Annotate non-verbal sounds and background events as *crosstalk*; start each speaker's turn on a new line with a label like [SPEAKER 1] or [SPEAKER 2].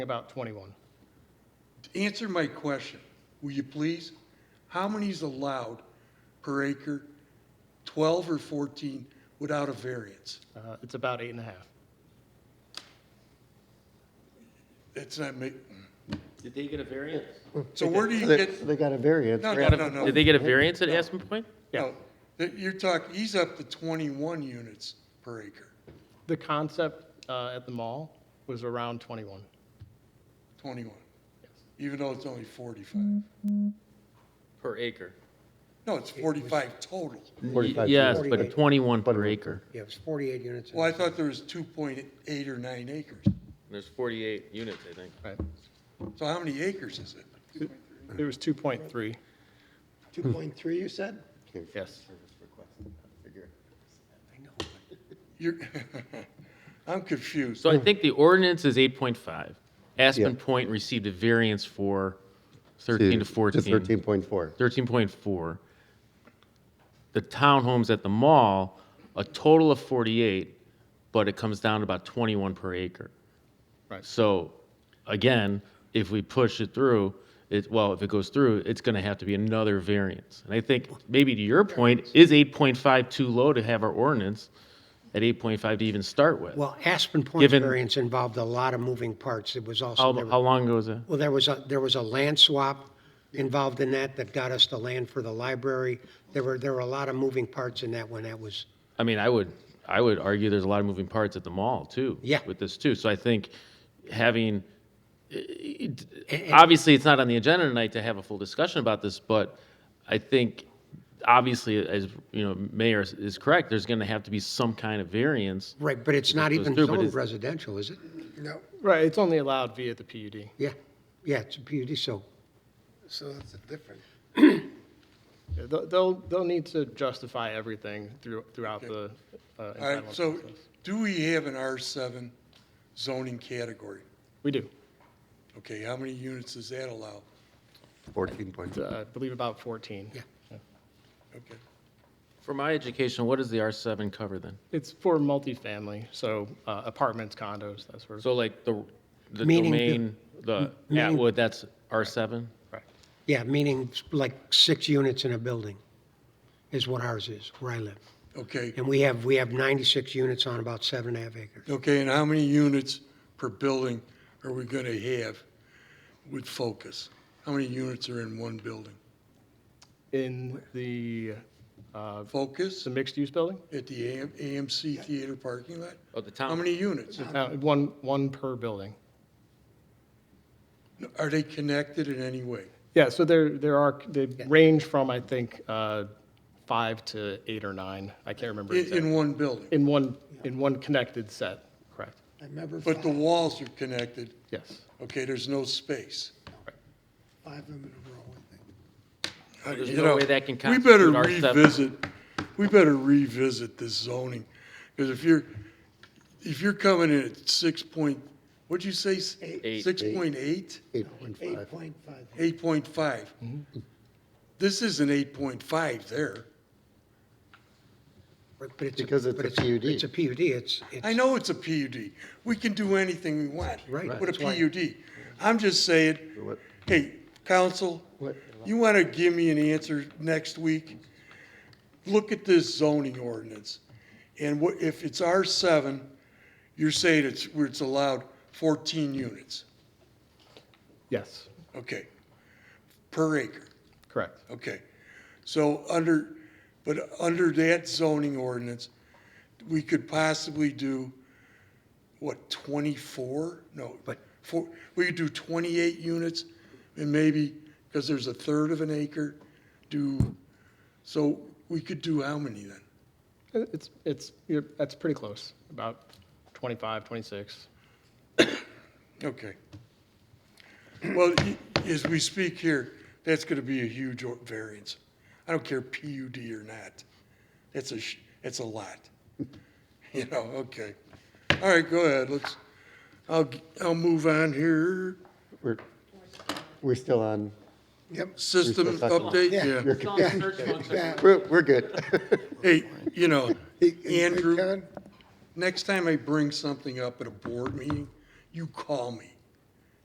[SPEAKER 1] about 21.
[SPEAKER 2] Answer my question, will you please? How many is allowed per acre, 12 or 14, without a variance?
[SPEAKER 1] Uh, It's about eight and a half.
[SPEAKER 2] It's not make,
[SPEAKER 3] Did they get a variance?
[SPEAKER 2] so where do you
[SPEAKER 4] They
[SPEAKER 2] get,
[SPEAKER 4] they got a variance.
[SPEAKER 2] no,
[SPEAKER 4] right?
[SPEAKER 2] no, no, no.
[SPEAKER 3] Did they get a variance at Aspen Point?
[SPEAKER 2] No, that you're talking, he's up to 21 units per acre,
[SPEAKER 1] The concept uh, at the mall was around 21.
[SPEAKER 2] 21, even though it's only 45.
[SPEAKER 3] Per acre.
[SPEAKER 2] No, it's 45 total.
[SPEAKER 4] Forty-five
[SPEAKER 3] Yes,
[SPEAKER 4] feet.
[SPEAKER 3] but 21 per acre.
[SPEAKER 5] Yeah, it was 48 units.
[SPEAKER 2] Well, I thought there was 2.8 or 9 acres.
[SPEAKER 3] There's 48 units, I think.
[SPEAKER 1] Right.
[SPEAKER 2] So how many acres is it?
[SPEAKER 1] It was 2.3,
[SPEAKER 5] 2.3, you said?
[SPEAKER 1] yes.
[SPEAKER 2] You're, *laughs* I'm confused.
[SPEAKER 3] So I think the ordinance is 8.5. Aspen
[SPEAKER 4] Yeah.
[SPEAKER 3] Point received a variance for 13 to 14.
[SPEAKER 4] Thirteen point four.
[SPEAKER 3] 13.4. The townhomes at the mall, a total of 48, but it comes down to about 21 per acre.
[SPEAKER 1] Right.
[SPEAKER 3] So, again, if we push it through, it, well, if it goes through, it's going to have to be another variance. And I think maybe to your point, is 8.5 too low to have our ordinance at 8.5 to even start with?
[SPEAKER 5] Well, Aspen Point
[SPEAKER 3] Given-
[SPEAKER 5] variance involved a lot of moving parts. It was also,
[SPEAKER 3] How,
[SPEAKER 5] there
[SPEAKER 3] how
[SPEAKER 5] were-
[SPEAKER 3] long ago was that?
[SPEAKER 5] well, there was, a there was a land swap involved in that that got us the land for the library. There were, there were a lot of moving parts in that when that was,
[SPEAKER 3] I mean, I would, I would argue there's a lot of moving parts at the mall too.
[SPEAKER 5] Yeah.
[SPEAKER 3] With this too, so I think having, it-
[SPEAKER 5] and-
[SPEAKER 3] obviously, it's not on the agenda tonight to have a full discussion about this, but I think, obviously, as, you know, Mayor is- is correct, there's gonna have to be some kind of variance.
[SPEAKER 5] right, but it's not
[SPEAKER 3] goes
[SPEAKER 5] even
[SPEAKER 3] through, but
[SPEAKER 5] zoned
[SPEAKER 3] it's-
[SPEAKER 5] residential, is it? No.
[SPEAKER 1] Right, it's only allowed via the PUD.
[SPEAKER 5] Yeah, yeah, it's a PUD, so,
[SPEAKER 6] So that's different.
[SPEAKER 1] Yeah, They'll, they'll they'll need to justify everything through- throughout the uh,
[SPEAKER 2] All right,
[SPEAKER 1] entitlement
[SPEAKER 2] so
[SPEAKER 1] process.
[SPEAKER 2] do we have an R7 zoning category?
[SPEAKER 1] We do,
[SPEAKER 2] Okay, how many units does that allow?
[SPEAKER 4] Fourteen point.
[SPEAKER 1] Uh, I believe about 14.
[SPEAKER 5] yeah.
[SPEAKER 2] Okay,
[SPEAKER 3] For my education, what does the R7 cover then?
[SPEAKER 1] It's for multifamily, so uh, apartments, condos, that sort of,
[SPEAKER 3] So like the, the
[SPEAKER 5] Meaning the-
[SPEAKER 3] domain, the
[SPEAKER 5] meaning-
[SPEAKER 3] Atwood, that's R7?
[SPEAKER 1] Correct.
[SPEAKER 5] Yeah, meaning like six units in a building is what ours is, where I live.
[SPEAKER 2] okay,
[SPEAKER 5] And we have, we have 96 units on about seven and a half acres.
[SPEAKER 2] okay, and how many units per building are we gonna have with Focus? How many units are in one building?
[SPEAKER 1] in the, uh,
[SPEAKER 2] Focus
[SPEAKER 1] the mixed-use building,
[SPEAKER 2] at the AM AMC Theater parking lot?
[SPEAKER 3] Oh, the town.
[SPEAKER 2] How many units?
[SPEAKER 1] Uh, one, one per building.
[SPEAKER 2] Are they connected in any way?
[SPEAKER 1] Yeah, so there, there are, they range from, I think, uh, five to eight or nine, I can't remember
[SPEAKER 2] In, in
[SPEAKER 1] exactly.
[SPEAKER 2] one building?
[SPEAKER 1] In one, in one connected set, correct,
[SPEAKER 6] I remember
[SPEAKER 2] But
[SPEAKER 6] five,
[SPEAKER 2] the walls are connected,
[SPEAKER 1] yes.
[SPEAKER 2] okay, there's no space.
[SPEAKER 6] five of them in a row, I think.
[SPEAKER 3] There's
[SPEAKER 2] You
[SPEAKER 3] no
[SPEAKER 2] know,
[SPEAKER 3] way that can
[SPEAKER 2] We better
[SPEAKER 3] constitute R7.
[SPEAKER 2] revisit, we better revisit this zoning, because if you're, if you're coming in at six point, what'd you say?
[SPEAKER 3] Eight.
[SPEAKER 2] Six point eight?
[SPEAKER 4] Eight point five.
[SPEAKER 6] Eight point five.
[SPEAKER 2] Eight point five. This isn't eight point five there.
[SPEAKER 5] But but it's. a-
[SPEAKER 4] Because it's
[SPEAKER 5] but
[SPEAKER 4] a PUD.
[SPEAKER 5] It's a PUD, it's,
[SPEAKER 2] I
[SPEAKER 5] it's,
[SPEAKER 2] know it's a PUD. We can do anything we want
[SPEAKER 5] Right.
[SPEAKER 2] with a
[SPEAKER 5] That's why-
[SPEAKER 2] PUD. I'm just saying,
[SPEAKER 4] What-
[SPEAKER 2] hey, council,
[SPEAKER 4] What-
[SPEAKER 2] you want to give me an answer next week? Look at this zoning ordinance. And what, if it's R7, you're saying it's, where it's allowed 14 units,
[SPEAKER 1] Yes,
[SPEAKER 2] okay, per acre.
[SPEAKER 1] correct.
[SPEAKER 2] Okay, so under, but under that zoning ordinance, we could possibly do, what, twenty-four? No,
[SPEAKER 5] But-
[SPEAKER 2] four, we could do twenty-eight units and maybe, because there's a third of an acre, do, so we could do how many then?
[SPEAKER 1] It- It's, it's, you're, that's pretty close, about 25, 26.
[SPEAKER 2] Okay. Well, y- as we speak here, that's gonna be a huge o- variance. I don't care PUD or not. That's a, sh- that's a lot. *laughs* You know, okay. All right, go ahead, let's, I'll, g- I'll move on here.
[SPEAKER 4] We're, we're still on,
[SPEAKER 2] System
[SPEAKER 4] Mr. Tucker.
[SPEAKER 2] update, yeah.
[SPEAKER 4] we're, we're good. *laughs*
[SPEAKER 2] Hey, you know,
[SPEAKER 6] Hey, hey,
[SPEAKER 2] Andrew,
[SPEAKER 6] Kevin,
[SPEAKER 2] next time I bring something up at a board meeting, you call me.